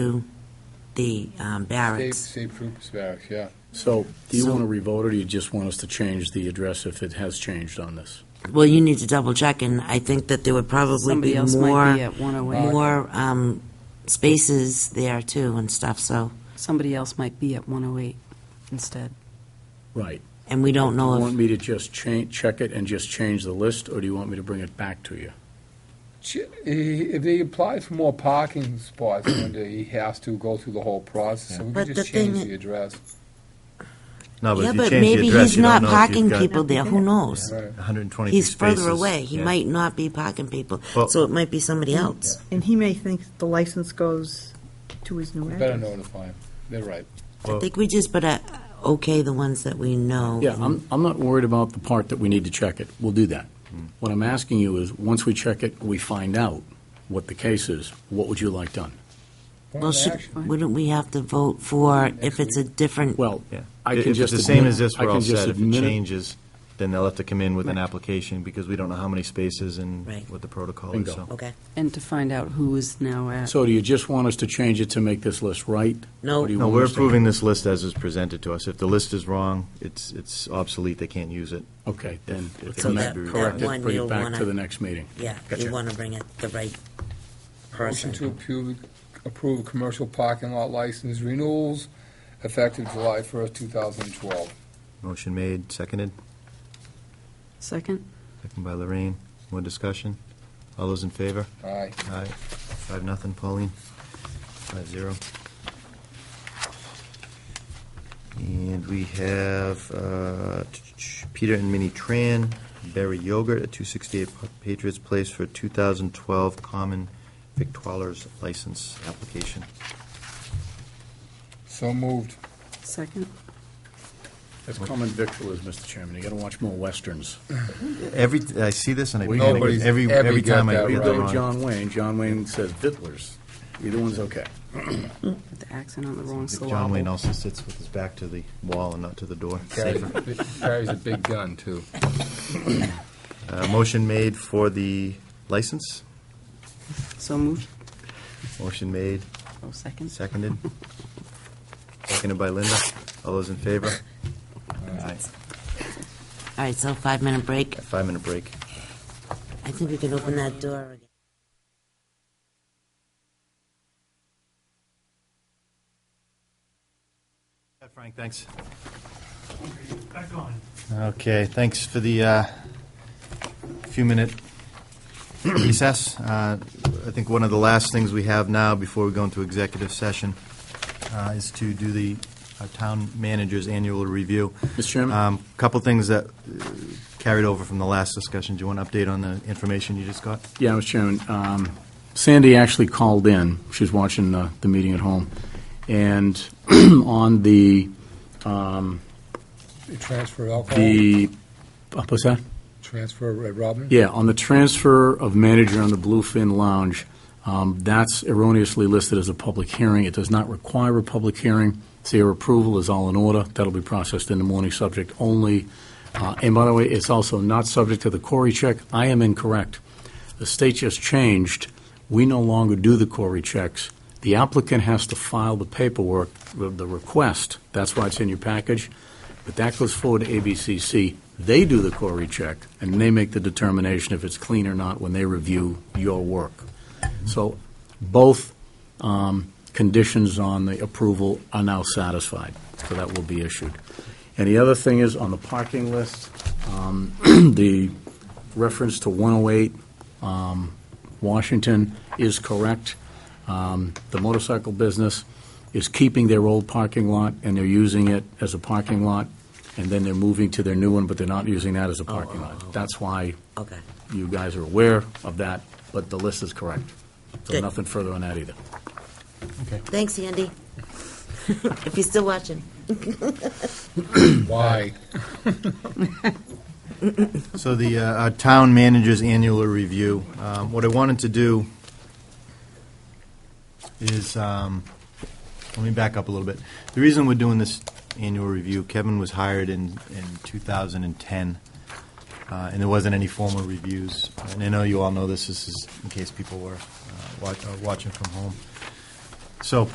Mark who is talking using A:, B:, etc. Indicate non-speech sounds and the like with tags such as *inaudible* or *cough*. A: to the um,
B: State,
A: barracks.
B: state troops barracks, yeah.
C: So, do you
A: So-
C: want to revote it, or you just want us to change the address if it has changed on this?
A: Well, you need to double check, and I think that there would probably
D: Somebody
A: be
D: else might be
A: more,
D: at 108.
A: more um, spaces there too and stuff, so,
D: Somebody else might be at 108 instead.
C: Right.
A: and we don't
C: Do you
A: know
C: want
A: if,
C: me to just cha, check it and just change the list, or do you want me to bring it back to you?
B: Ch- he- If he applies for more parking spots, then he has to go through the whole process, so we
A: But
B: can
A: the
B: just change
A: thing-
B: the address.
E: No, but
A: yeah,
E: if you
A: but
E: change the
A: maybe
E: address,
A: he's
E: you
A: not
E: don't know if
A: parking
E: you've got
A: people there, who knows?
B: Right.
E: 123
A: He's
E: spaces.
A: further away, he
E: Yeah.
A: might not be parking people,
E: Well-
A: so it might be somebody else.
F: And he may think the license goes to his new
B: We Better
F: address.
B: notify him, they're right.
A: I think we just better okay the ones that we know.
C: Yeah, I'm, I'm not worried about the part that we need to check it. We'll do that.
E: Hmm.
C: What I'm asking you is, once we check it, we find out what the case is, what would you like done?
B: Point
A: Well,
B: of
A: should-
B: action.
A: wouldn't we have to vote for if it's a different?
C: Well,
E: Yeah.
C: I
E: If
C: can
E: it's
C: just.
E: the same
C: admit-
E: as this,
C: I
E: we're
C: can
E: all
C: just
E: set. If it
C: admit
E: changes, then they'll have to come in with an application because we don't know how many spaces and
A: Right.
E: what the protocol
C: Bingo.
E: is, so.
A: Okay,
D: And to find out who is now at,
C: So do you just want us to change it to make this list right?
A: No.
C: Or do you
E: No,
C: want
E: we're
C: us to-
E: approving this list as is presented to us. If the list is wrong, it's, it's obsolete, they can't use it.
C: Okay, then,
E: If- if it
A: So
C: then
E: needs
A: that-
E: to be
A: that
E: corrected.
A: one
C: bring
A: you'll
C: it back
A: wanna-
C: to the next meeting.
A: yeah,
C: Gotcha.
A: you want to bring it the right
B: Motion to
A: person.
B: approve, approve commercial parking lot license renewals effective July first, two thousand and twelve.
E: Motion made, seconded,
D: second?
E: seconded by Lorraine. More discussion? All those in favor?
B: Aye.
E: Aye. Five, nothing, Pauline? Five, zero. And we have uh, Peter and Minnie Tran, Berry Yogurt at 268 Patriots Place for 2012 Common Victualers License Application.
B: So moved.
D: Second?
C: That's common victual, Mr. Chairman. You got to watch more westerns.
E: Every, I see this and I panic,
B: Nobody's
E: every,
B: ever
E: every
B: got
E: time I
B: that
E: get
C: Either
E: that
B: right.
C: with
E: wrong.
C: John Wayne, John Wayne says vittlers. Either one's okay.
D: Put the accent on the wrong
E: John Wayne
D: syllable.
E: also sits with his back to the wall and not to the door.
B: Carries
E: Safer.
B: carries a big gun, too.
E: Uh, Motion made for the license.
D: So moved,
E: Motion made.
D: oh, second?
E: Seconded. Seconded by Linda. All those in favor? Aye.
A: All right, so five-minute break.
E: Five-minute break.
A: I think we can open that door again.
E: Frank, thanks.
G: Back on.
E: Okay, thanks for the uh, few-minute recess. Uh, I think one of the last things we have now before we go into executive session uh, is to do the our town manager's annual review.
C: Mr. Chairman?
E: Um, Couple things that uh, carried over from the last discussion. Do you want an update on the information you just got?
C: Yeah, Mr. Chairman, um, Sandy actually called in. She's watching the, the meeting at home. And *clears throat* on the, um,
B: Transfer alcohol,
C: the, uh, what's that?
B: transfer Red Robin?
C: Yeah, on the transfer of manager on the Bluefin Lounge, um, that's erroneously listed as a public hearing. It does not require a public hearing, so your approval is all in order. That'll be processed in the morning, subject only. Uh, And by the way, it's also not subject to the Corey check. I am incorrect. The state just changed. We no longer do the Corey checks. The applicant has to file the paperwork, the the request. That's why it's in your package. But that goes forward to ABCC. They do the query check, and they make the determination if it's clean or not when they review your work. So both um, conditions on the approval are now satisfied, so that will be issued. And the other thing is, on the parking list, um, *clears throat* the reference to 108 um, Washington is correct. Um, The motorcycle business is keeping their old parking lot, and they're using it as a parking lot, and then they're moving to their new one, but they're not using that as a parking lot. That's why
A: Okay.
C: you guys are aware of that, but the list is correct. So
A: Good.
C: nothing further on that either.
A: Thanks, Andy. *laughs* If you're still watching.
B: Why?
E: So the, uh, our town manager's annual review, um, what I wanted to do is, um, let me back up a little bit. The reason we're doing this annual review, Kevin was hired in, in 2010, uh, and there wasn't any formal reviews. And I know you all know this, this is in case people were uh, wa- uh, watching from home. So